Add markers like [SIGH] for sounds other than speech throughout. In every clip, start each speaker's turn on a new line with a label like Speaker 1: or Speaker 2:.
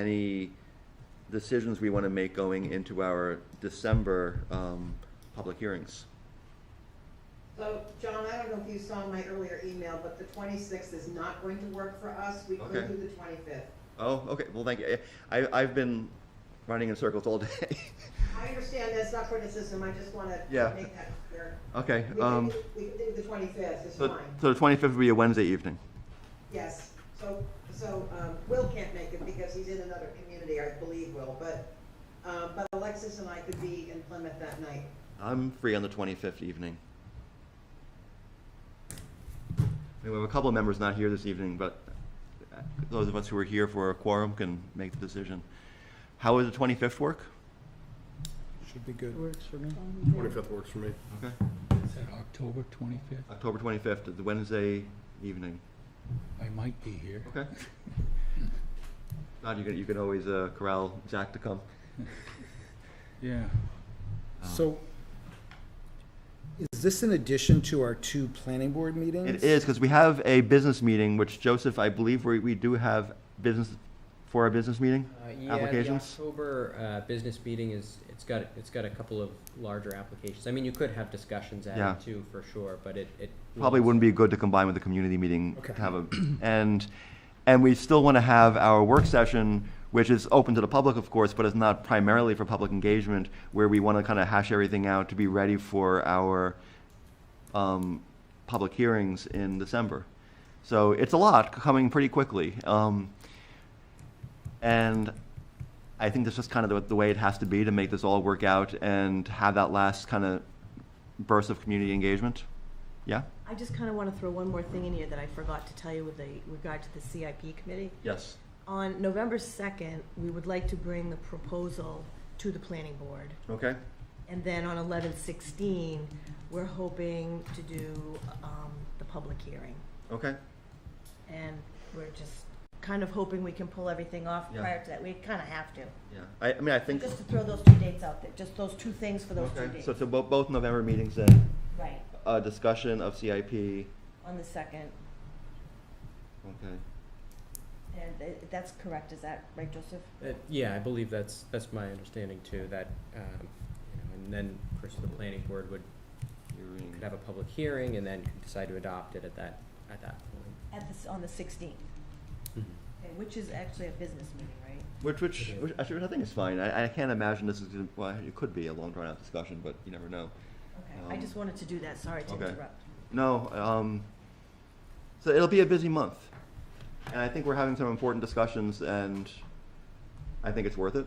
Speaker 1: any decisions we want to make going into our December um, public hearings.
Speaker 2: So, John, I don't know if you saw my earlier email, but the twenty-sixth is not going to work for us. We
Speaker 1: Okay.
Speaker 2: could do the twenty-fifth.
Speaker 1: Oh, okay, well, thank you. I, I've been running in circles all day. [LAUGHS]
Speaker 2: I understand that's not criticism, I just wanna
Speaker 1: Yeah.
Speaker 2: make that clear.
Speaker 1: Okay,
Speaker 2: We can
Speaker 1: um,
Speaker 2: do, we can do the twenty-fifth, it's
Speaker 1: so,
Speaker 2: fine,
Speaker 1: so the twenty-fifth will be a Wednesday evening.
Speaker 2: yes. So, so, um, Will can't make it because he's in another community, I believe, Will, but, um, but Alexis and I could be in Plymouth that night.
Speaker 1: I'm free on the twenty-fifth evening. I mean, We have a couple of members not here this evening, but uh, those of us who are here for a quorum can make the decision. How would the twenty-fifth work?
Speaker 3: Should be good.
Speaker 4: Works for me.
Speaker 5: Twenty-fifth works for me.
Speaker 1: Okay,
Speaker 4: Is that October 25th?
Speaker 1: October twenty-fifth, the Wednesday evening.
Speaker 4: I might be here.
Speaker 1: Okay. Todd, you can, you can always uh, corral Jack to come.
Speaker 4: Yeah.
Speaker 1: Oh.
Speaker 3: So is this in addition to our two planning board meetings?
Speaker 1: It is, because we have a business meeting, which Joseph, I believe we, we do have business, for our business meeting?
Speaker 6: Uh, yeah, the
Speaker 1: Applications?
Speaker 6: October uh, business meeting is, it's got, it's got a couple of larger applications. I mean, you could have discussions
Speaker 1: Yeah.
Speaker 6: added too, for sure, but it, it.
Speaker 1: Probably
Speaker 6: rules-
Speaker 1: wouldn't be good to combine with the community meeting. to
Speaker 3: Okay.
Speaker 1: Have a, and, and we still want to have our work session, which is open to the public, of course, but it's not primarily for public engagement, where we want to kind of hash everything out to be ready for our, um, public hearings in December. So it's a lot coming pretty quickly. Um, and I think that's just kind of the, the way it has to be to make this all work out and have that last kind of burst of community engagement. Yeah?
Speaker 7: I just kind of want to throw one more thing in here that I forgot to tell you with the regard to the CIP committee.
Speaker 1: Yes.
Speaker 7: On November 2nd, we would like to bring the proposal to the planning board.
Speaker 1: Okay.
Speaker 7: And then on 11/16, we're hoping to do um, the public hearing.
Speaker 1: Okay.
Speaker 7: And we're just kind of hoping we can pull everything off
Speaker 1: Yeah.
Speaker 7: prior to that. We kind of have to.
Speaker 1: Yeah. I, I mean, I think.
Speaker 7: Just to throw those two dates out there, just those two things for those two
Speaker 1: Okay.
Speaker 7: dates.
Speaker 1: So, so bo- both November meetings then,
Speaker 7: Right,
Speaker 1: a discussion of CIP. Okay.
Speaker 7: on the 2nd. And uh, that's correct, is that right, Joseph?
Speaker 6: Uh, Yeah, I believe that's, that's my understanding too, that, um, you know, and then, of course, the planning board would,
Speaker 1: Hearing.
Speaker 6: could have a public hearing and then could decide to adopt it at that, at that point.
Speaker 7: At the, s- on the 16th. Okay, Which is actually a business meeting, right?
Speaker 1: Which, which, which, actually, which I think is fine. I, I can't imagine this is, gonna- well, it could be a long drawn out discussion, but you never know.
Speaker 7: Okay, I
Speaker 1: Um,
Speaker 7: just wanted to do that, sorry to
Speaker 1: okay.
Speaker 7: interrupt.
Speaker 1: No, um, so it'll be a busy month. And I think we're having some important discussions and I think it's worth it.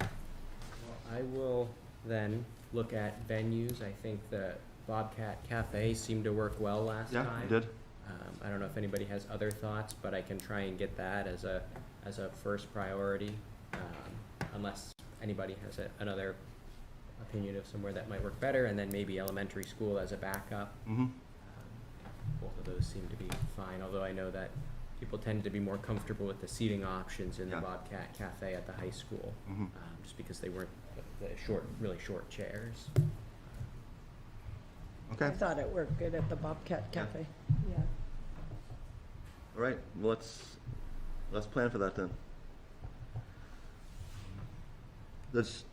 Speaker 6: Well, I will then look at venues. I think the Bobcat Cafe seemed to work well last
Speaker 1: Yeah,
Speaker 6: time.
Speaker 1: you did.
Speaker 6: Um, I don't know if anybody has other thoughts, but I can try and get that as a, as a first priority, um, unless anybody has a, another opinion of somewhere that might work better, and then maybe elementary school as a backup.
Speaker 1: hmm
Speaker 6: Um, Both of those seem to be fine, although I know that people tend to be more comfortable with the seating options in the
Speaker 1: Yeah.
Speaker 6: Bobcat Cafe at the high school,
Speaker 1: hmm
Speaker 6: um, just because they weren't the the short, really short chairs.
Speaker 1: Okay,
Speaker 7: thought it worked good at the Bobcat
Speaker 1: Yeah.
Speaker 7: Yeah.
Speaker 1: all right, well, let's, let's plan for that then. Does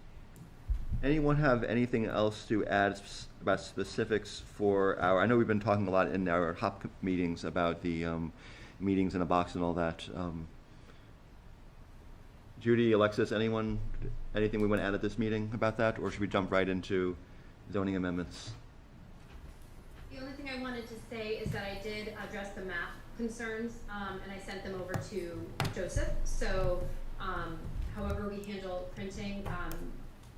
Speaker 1: anyone have anything else to add s- about specifics for our, I know we've been talking a lot in our HOP meetings about the, um, meetings in a box and all that. um, Judy, Alexis, anyone, anything we want to add at this meeting about that, or should we jump right into zoning amendments?
Speaker 8: The only thing I wanted to say is that I did address the math concerns, um, and I sent them over to Joseph. So, um, however we handle printing, um,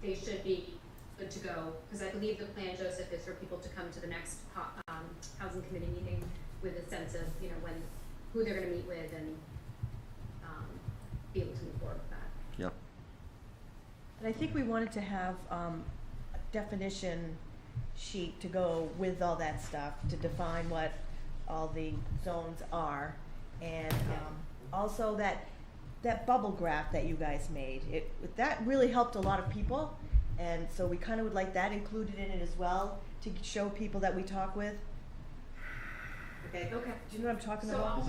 Speaker 8: they should be good to go, because I believe the plan, Joseph, is for people to come to the next, ho- um, housing committee meeting with a sense of, you know, when, who they're gonna meet with and, um, be able to move forward with that.
Speaker 1: Yep.
Speaker 7: And I think we wanted to have um, a definition sheet to go with all that stuff, to define what all the zones are. And um, also that, that bubble graph that you guys made, it, that really helped a lot of people. And so we kind of would like that included in it as well, to show people that we talk with.
Speaker 2: okay?
Speaker 8: Okay.
Speaker 7: Do you know what I'm talking
Speaker 8: So
Speaker 7: about?
Speaker 8: I'll